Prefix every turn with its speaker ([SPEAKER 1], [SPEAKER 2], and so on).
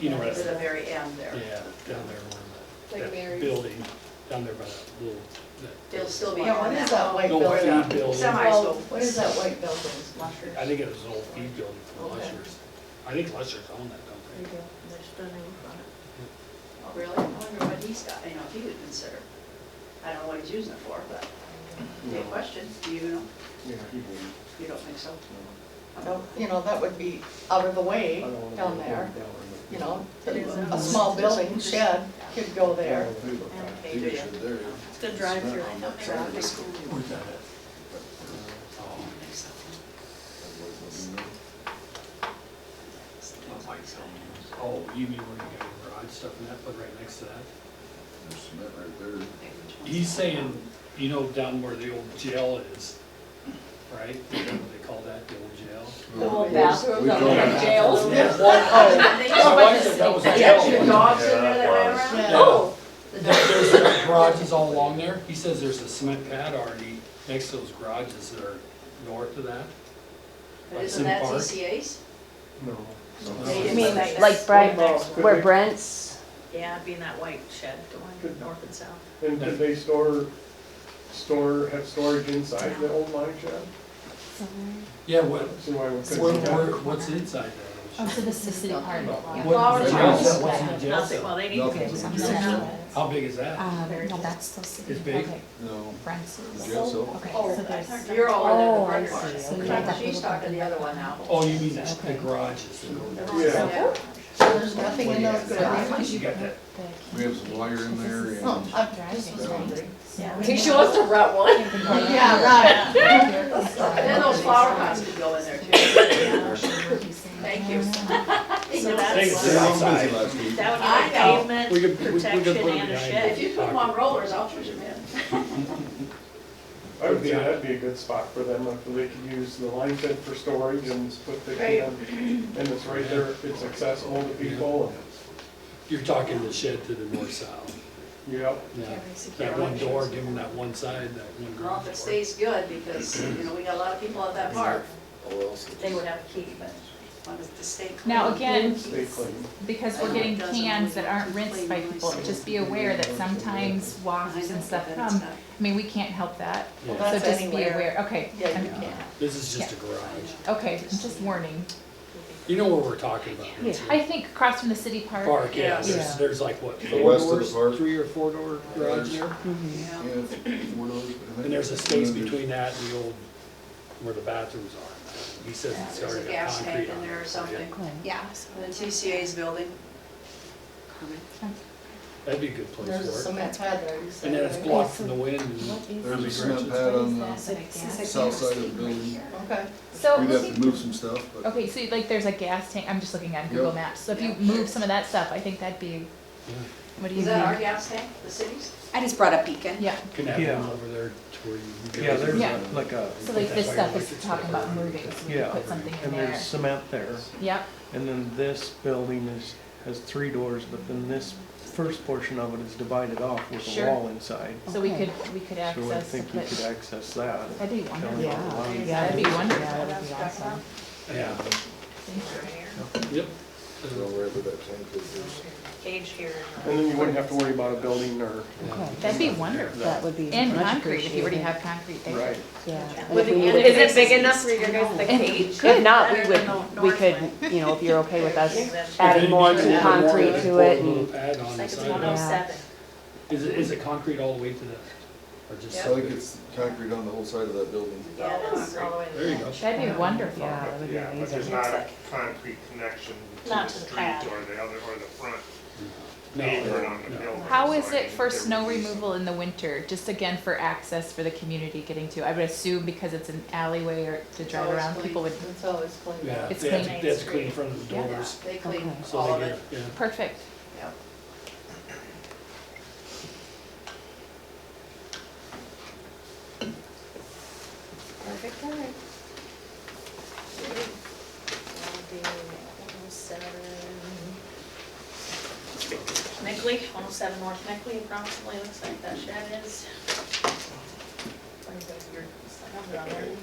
[SPEAKER 1] you know where
[SPEAKER 2] To
[SPEAKER 1] that's,
[SPEAKER 2] the
[SPEAKER 1] yeah,
[SPEAKER 2] very end there.
[SPEAKER 1] down there
[SPEAKER 3] Like
[SPEAKER 1] where the, that
[SPEAKER 3] Mary's?
[SPEAKER 1] building, down there by that little, that-
[SPEAKER 2] They'll still be
[SPEAKER 4] Yeah,
[SPEAKER 2] on
[SPEAKER 4] what is
[SPEAKER 2] that.
[SPEAKER 4] that white
[SPEAKER 1] the old feed
[SPEAKER 4] building?
[SPEAKER 1] building.
[SPEAKER 2] Semi-
[SPEAKER 4] Well, what is that white building, Lushers?
[SPEAKER 1] I think it was an old feed building for
[SPEAKER 4] Okay.
[SPEAKER 1] Lushers. I think Lushers owned that, don't they?
[SPEAKER 2] Oh, Really? I wonder what he's got, you know, if he would consider. I don't know what he's using it for, but good question. Do you know?
[SPEAKER 5] Yeah, he wouldn't.
[SPEAKER 2] You don't think so?
[SPEAKER 4] So, You know, that would be out of the way
[SPEAKER 5] I don't wanna
[SPEAKER 4] down
[SPEAKER 5] go
[SPEAKER 4] there,
[SPEAKER 5] down
[SPEAKER 4] you know, a small building shed could go there.
[SPEAKER 2] Okay,
[SPEAKER 5] He
[SPEAKER 2] do
[SPEAKER 5] was
[SPEAKER 2] ya?
[SPEAKER 5] in there.
[SPEAKER 6] It's the drive-through, I know they're out of school.
[SPEAKER 1] Oh, Oh, you mean where you got your garage stuff and that, but right next to that?
[SPEAKER 5] There's cement right there.
[SPEAKER 1] He's saying, you know, down where the old jail is, right? You know What they call that, the old jail?
[SPEAKER 6] The
[SPEAKER 4] Oh,
[SPEAKER 6] whole bathroom, the whole jail.
[SPEAKER 1] My wife said that was a
[SPEAKER 2] They got your
[SPEAKER 1] jail.
[SPEAKER 2] dogs in there that ran around?
[SPEAKER 4] Yeah.
[SPEAKER 6] Oh,
[SPEAKER 2] The
[SPEAKER 1] There-
[SPEAKER 2] dogs-
[SPEAKER 1] There's cement garages all along there. He says there's a cement pad already next to those garages that are north of that.
[SPEAKER 2] But Isn't that
[SPEAKER 1] Park.
[SPEAKER 2] CCA's?
[SPEAKER 5] No.
[SPEAKER 2] They
[SPEAKER 6] you
[SPEAKER 2] didn't
[SPEAKER 6] mean
[SPEAKER 2] like
[SPEAKER 6] like
[SPEAKER 2] that.
[SPEAKER 6] Brian,
[SPEAKER 2] Well,
[SPEAKER 6] where Brent's,
[SPEAKER 3] Yeah, it'd be in that white shed going north and south.
[SPEAKER 7] And did they store, store, have storage inside the old mine shed?
[SPEAKER 8] Oh,
[SPEAKER 1] Yeah, what,
[SPEAKER 7] So why would
[SPEAKER 1] where-
[SPEAKER 7] couldn't
[SPEAKER 1] where- what's inside that?
[SPEAKER 8] Oh, so this is the part.
[SPEAKER 1] What is the jail cell? What's in the jail
[SPEAKER 3] Nothing, well,
[SPEAKER 1] cell?
[SPEAKER 3] they need
[SPEAKER 5] Nothing.
[SPEAKER 3] to.
[SPEAKER 8] Um,
[SPEAKER 1] How big is that?
[SPEAKER 8] no, that's still city.
[SPEAKER 1] It's big.
[SPEAKER 8] Okay,
[SPEAKER 5] No.
[SPEAKER 8] Brent's is.
[SPEAKER 5] Jail cell.
[SPEAKER 8] Okay,
[SPEAKER 2] Oh,
[SPEAKER 8] so
[SPEAKER 2] I
[SPEAKER 8] there's,
[SPEAKER 2] thought you're
[SPEAKER 8] Oh,
[SPEAKER 2] over
[SPEAKER 8] I
[SPEAKER 2] there. the
[SPEAKER 8] see. So
[SPEAKER 2] front
[SPEAKER 8] you got
[SPEAKER 2] yard.
[SPEAKER 8] that
[SPEAKER 2] She's
[SPEAKER 8] little
[SPEAKER 2] talking the other one now.
[SPEAKER 1] Oh, you mean the the garages that go north?
[SPEAKER 7] Yeah.
[SPEAKER 2] Yeah.
[SPEAKER 4] So there's nothing in those
[SPEAKER 1] I
[SPEAKER 4] garages.
[SPEAKER 1] think you got that.
[SPEAKER 8] the.
[SPEAKER 5] We have some wire in there and.
[SPEAKER 4] Oh, I just was wondering.
[SPEAKER 8] Yeah.
[SPEAKER 6] Tisha wants to rut one.
[SPEAKER 4] Yeah, right.
[SPEAKER 2] And then those flower pots could go in there too. Thank you.
[SPEAKER 3] So
[SPEAKER 1] Thanks,
[SPEAKER 3] that's,
[SPEAKER 1] sir.
[SPEAKER 3] that
[SPEAKER 5] I was busy last week.
[SPEAKER 2] I
[SPEAKER 3] would
[SPEAKER 2] know.
[SPEAKER 1] We
[SPEAKER 3] be
[SPEAKER 1] could-
[SPEAKER 3] like
[SPEAKER 1] we-
[SPEAKER 3] pavement,
[SPEAKER 1] we could
[SPEAKER 3] protection
[SPEAKER 1] put it
[SPEAKER 3] and a
[SPEAKER 1] behind
[SPEAKER 3] shed.
[SPEAKER 2] If you put them on rollers, I'll push them in.
[SPEAKER 7] I would think that'd be a good spot for them, if they could use the line shed for storage and just put the can, and it's right there, it's accessible to people,
[SPEAKER 1] You're talking the shed to the north south.
[SPEAKER 7] and, yep.
[SPEAKER 1] Yeah. That one door, give them that one side, that one
[SPEAKER 2] Well, if it
[SPEAKER 1] garage door.
[SPEAKER 2] stays good, because, you know, we got a lot of people at that park,
[SPEAKER 5] Oh, else is-
[SPEAKER 3] They would have a key, but.
[SPEAKER 2] wanted to stay clean.
[SPEAKER 8] Now, again,
[SPEAKER 7] Stay clean.
[SPEAKER 8] because we're getting cans that aren't rinsed by people, just be aware that sometimes wasps and stuff come. I mean, we can't help that,
[SPEAKER 1] Yeah.
[SPEAKER 8] so
[SPEAKER 4] That's
[SPEAKER 8] just be
[SPEAKER 4] anywhere.
[SPEAKER 8] aware, okay.
[SPEAKER 4] Yeah, you
[SPEAKER 8] I'm-
[SPEAKER 4] can.
[SPEAKER 1] This is just a garage.
[SPEAKER 8] Okay, I'm just warning.
[SPEAKER 1] You know what we're talking about. don't you?
[SPEAKER 8] I think across from the city park,
[SPEAKER 1] Park, yeah, there's,
[SPEAKER 8] Yeah.
[SPEAKER 1] there's like what,
[SPEAKER 5] The
[SPEAKER 1] four
[SPEAKER 5] west of the
[SPEAKER 1] doors,
[SPEAKER 5] park.
[SPEAKER 1] three or four door garage
[SPEAKER 2] Yeah.
[SPEAKER 1] there?
[SPEAKER 5] Yeah, four doors, I think.
[SPEAKER 1] And there's a space
[SPEAKER 5] And then
[SPEAKER 1] between that and the old, where the bathrooms are. He says it's
[SPEAKER 2] There's a
[SPEAKER 1] already got
[SPEAKER 2] gas tank
[SPEAKER 1] concrete
[SPEAKER 2] in
[SPEAKER 1] on
[SPEAKER 2] there or
[SPEAKER 1] it.
[SPEAKER 2] something.
[SPEAKER 6] Yeah.
[SPEAKER 2] The TCA's building.
[SPEAKER 1] That'd be a good place
[SPEAKER 4] There's a
[SPEAKER 1] for it.
[SPEAKER 4] cement pad there, you said.
[SPEAKER 1] And then it's
[SPEAKER 4] right?
[SPEAKER 1] blocked from the wind and
[SPEAKER 5] There's a cement pad on the south side of the building.
[SPEAKER 4] Okay.
[SPEAKER 8] so
[SPEAKER 5] We'd have
[SPEAKER 8] looking
[SPEAKER 5] to move some stuff, but
[SPEAKER 8] Okay, so like there's a gas tank, I'm just looking on Google
[SPEAKER 5] Yep.
[SPEAKER 8] Maps, so if you move some of that stuff, I think that'd be, what do you
[SPEAKER 2] Is that our
[SPEAKER 8] think?
[SPEAKER 2] gas tank, the city's?
[SPEAKER 6] I just brought up Beacon.
[SPEAKER 8] Yeah,
[SPEAKER 1] can have them
[SPEAKER 9] Yeah.
[SPEAKER 1] over there to where you.
[SPEAKER 9] Yeah, there's
[SPEAKER 8] Yeah.
[SPEAKER 9] a- like a,
[SPEAKER 8] so like this
[SPEAKER 1] That's
[SPEAKER 8] stuff
[SPEAKER 1] why
[SPEAKER 8] is
[SPEAKER 1] electric's
[SPEAKER 8] talking about
[SPEAKER 1] better.
[SPEAKER 8] moving, so we
[SPEAKER 9] Yeah.
[SPEAKER 8] can put something in
[SPEAKER 9] and
[SPEAKER 8] there.
[SPEAKER 9] there's cement there,
[SPEAKER 8] Yep,
[SPEAKER 9] and then this building is, has three doors, but then this first portion of it is divided off with a
[SPEAKER 8] Sure.
[SPEAKER 9] wall inside.
[SPEAKER 8] so we could, we could
[SPEAKER 9] So I
[SPEAKER 8] access,
[SPEAKER 9] think you
[SPEAKER 8] but-
[SPEAKER 9] could access that.
[SPEAKER 8] that'd be
[SPEAKER 9] Down
[SPEAKER 8] wonderful.
[SPEAKER 9] the line.
[SPEAKER 8] That'd be wonderful.
[SPEAKER 3] That's awesome.
[SPEAKER 1] Yeah,
[SPEAKER 3] Right here,
[SPEAKER 1] yep.
[SPEAKER 5] I don't know whether that tank is, there's
[SPEAKER 3] cage here.
[SPEAKER 7] And then you wouldn't have to worry about a building or,
[SPEAKER 8] That'd be wonderful.
[SPEAKER 7] That
[SPEAKER 8] would be. And concrete, if you already have concrete there.
[SPEAKER 7] right,
[SPEAKER 6] Is it big enough for your guys to cage?
[SPEAKER 3] Good.
[SPEAKER 10] If not, we
[SPEAKER 3] Better
[SPEAKER 10] would,
[SPEAKER 3] than the
[SPEAKER 10] we
[SPEAKER 3] north
[SPEAKER 10] could,
[SPEAKER 3] one.
[SPEAKER 10] you know, if you're okay with us
[SPEAKER 3] That's-
[SPEAKER 10] adding more
[SPEAKER 1] If it
[SPEAKER 10] to
[SPEAKER 1] needs a little more,
[SPEAKER 10] concrete
[SPEAKER 1] just
[SPEAKER 10] to
[SPEAKER 1] put a
[SPEAKER 10] it
[SPEAKER 1] Little
[SPEAKER 10] and,
[SPEAKER 1] pad
[SPEAKER 3] It's
[SPEAKER 1] on the
[SPEAKER 3] like it's
[SPEAKER 1] side.
[SPEAKER 3] one
[SPEAKER 1] of
[SPEAKER 3] oh
[SPEAKER 1] it.
[SPEAKER 3] seven.
[SPEAKER 1] Is it, is it concrete all the way to the, or just?
[SPEAKER 5] I think it's concrete on the whole side of that building.
[SPEAKER 3] Yeah, that's all the way. to the
[SPEAKER 1] There you
[SPEAKER 3] back.
[SPEAKER 1] go.
[SPEAKER 8] That'd be wonderful.
[SPEAKER 10] yeah, that would be
[SPEAKER 7] Yeah,
[SPEAKER 10] amazing.
[SPEAKER 3] not a
[SPEAKER 7] concrete connection
[SPEAKER 3] to Not the to the street pad. or
[SPEAKER 7] the other, or the front
[SPEAKER 1] No, no.
[SPEAKER 8] How is it for snow removal in the winter, just again for access for the community getting to? I would assume because it's an alleyway or to drive
[SPEAKER 2] always
[SPEAKER 8] around,
[SPEAKER 2] clean.
[SPEAKER 8] people would,
[SPEAKER 4] It's always clean.
[SPEAKER 1] Yeah,
[SPEAKER 8] It's
[SPEAKER 1] they have to-
[SPEAKER 8] clean.
[SPEAKER 1] they have to clean in front of the
[SPEAKER 8] Yeah.
[SPEAKER 2] Yeah,
[SPEAKER 1] doors.
[SPEAKER 2] they clean
[SPEAKER 10] Okay.
[SPEAKER 2] all
[SPEAKER 1] So
[SPEAKER 2] of
[SPEAKER 1] they
[SPEAKER 2] it.
[SPEAKER 1] get, yeah.
[SPEAKER 8] perfect.
[SPEAKER 2] Yep.
[SPEAKER 6] Perfect, all right.
[SPEAKER 3] Nickley, one oh seven North Nickley, approximately, looks like that shed is. Where's that weird stuff on there?